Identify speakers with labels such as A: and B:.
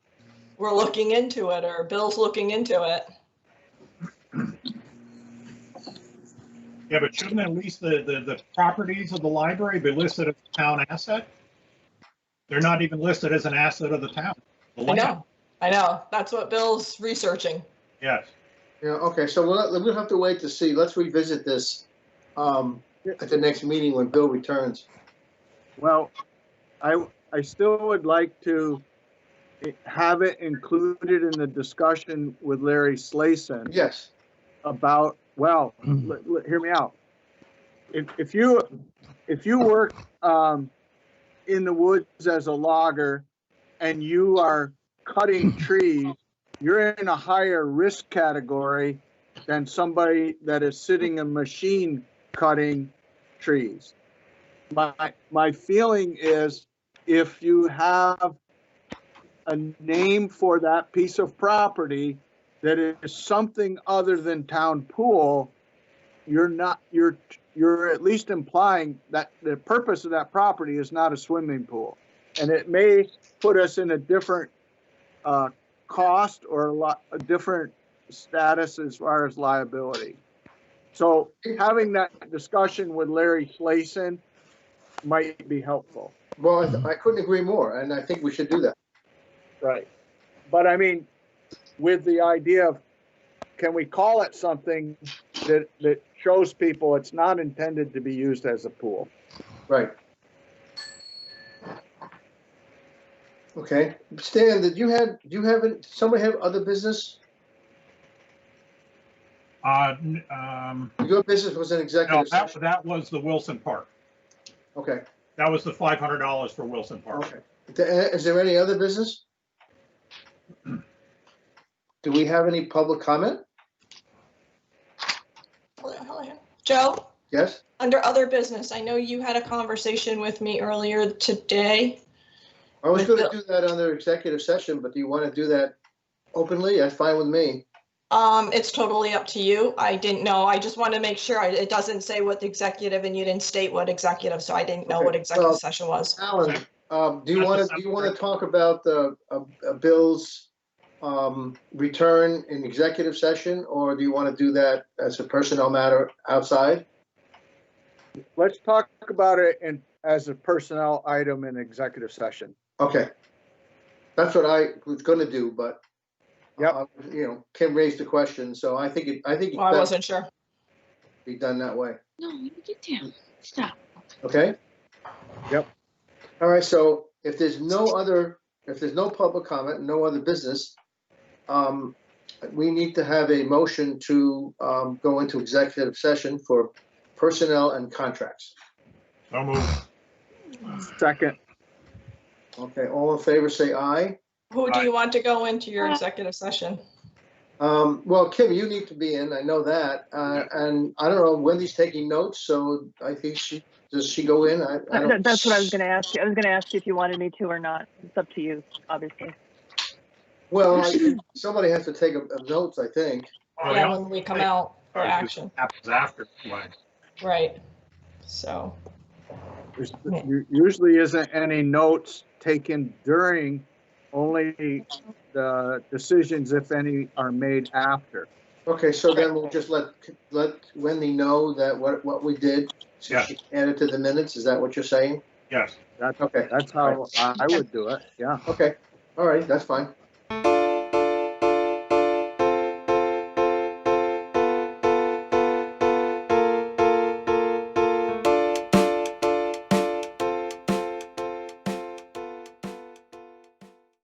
A: we're looking into it or Bill's looking into it.
B: Yeah, but shouldn't at least the, the, the properties of the library be listed as town asset? They're not even listed as an asset of the town. The
A: I
B: land,
A: know, I know. That's what Bill's researching.
B: Yes.
C: Yeah, okay, so we'll, we'll have to wait to see. Let's revisit this um, at the next meeting when Bill returns.
D: Well, I, I still would like to have it included in the discussion with Larry Slayson
C: Yes,
D: about, well, l- l- hear me out. If, if you, if you work, um, in the woods as a logger and you are cutting trees, you're in a higher risk category than somebody that is sitting in machine cutting trees. My, my feeling is if you have a name for that piece of property that is something other than town pool, you're not, you're, you're at least implying that the purpose of that property is not a swimming pool. And it may put us in a different, uh, cost or a lot, a different status as far as liability. So having that discussion with Larry Slayson might be helpful.
C: well, I- I couldn't agree more, and I think we should do that.
D: Right. But I mean, with the idea of, can we call it something that, that shows people it's not intended to be used as a pool?
C: Right. Okay, Stan, did you have, do you have, an- somebody have other business?
B: Uh, n- um,
C: Your business was an
B: no,
C: executive
B: that,
C: session?
B: that was the Wilson Park.
C: Okay,
B: That was the five hundred dollars for Wilson Park.
C: okay. Th- Is there any other business? Do we have any public comment?
A: Joe,
C: Yes?
A: under other business, I know you had a conversation with me earlier today.
C: I was
A: With
C: gonna do that under executive session, but do you wanna do that openly? That's fine with me.
A: Um, it's totally up to you. I didn't know. I just want to make sure I- it doesn't say what the executive and you didn't state what executive, so I didn't know what
C: Okay,
A: executive
C: well-
A: session was.
C: Alan, um, do you
B: Not
C: wanna,
B: the
C: do you wanna talk about the, uh, uh, Bill's, um, return in executive session? Or do you wanna do that as a personnel matter outside?
D: Let's talk about it in, as a personnel item in executive session.
C: Okay. That's what I was gonna do, but
D: Yep.
C: uh, You know, Kim raised the question, so I think, it I think
A: Well,
C: it
A: I
C: best
A: wasn't sure.
C: be done that way,
E: No, you get down. Stop.
C: okay?
D: Yep.
C: All right, so if there's no other, if there's no public comment, no other business, um, we need to have a motion to, um, go into executive session for personnel and contracts.
B: So moved.
D: Second,
C: Okay, all in favor, say aye.
A: Who do
B: Aye.
A: you want to go into your
E: Uh,
A: executive session?
C: Um, well, Kim, you need to be in, I know that, uh, and I don't know, Wendy's taking notes, so I think she, does she go in? I, I
F: That-
C: don't.
F: That's what I was gonna ask you. I was gonna ask you if you wanted me to or not. It's up to you, obviously.
C: Well, I- somebody has to take a, a notes, I think.
B: Oh,
A: Yeah,
B: yeah.
A: when we come out for
B: Sorry, this
A: action,
B: Happens after. anyway.
A: right? So,
D: there's- there usually isn't any notes taken during, only the decisions, if any, are made after.
C: Okay, so then we'll just let, let Wendy know that what, what we did. so
B: Yeah.
C: she can Add it to the minutes, is that what you're saying?
B: Yes.
D: That's,
C: Okay,
D: that's how I I would do it, yeah.
C: okay, all right, that's fine.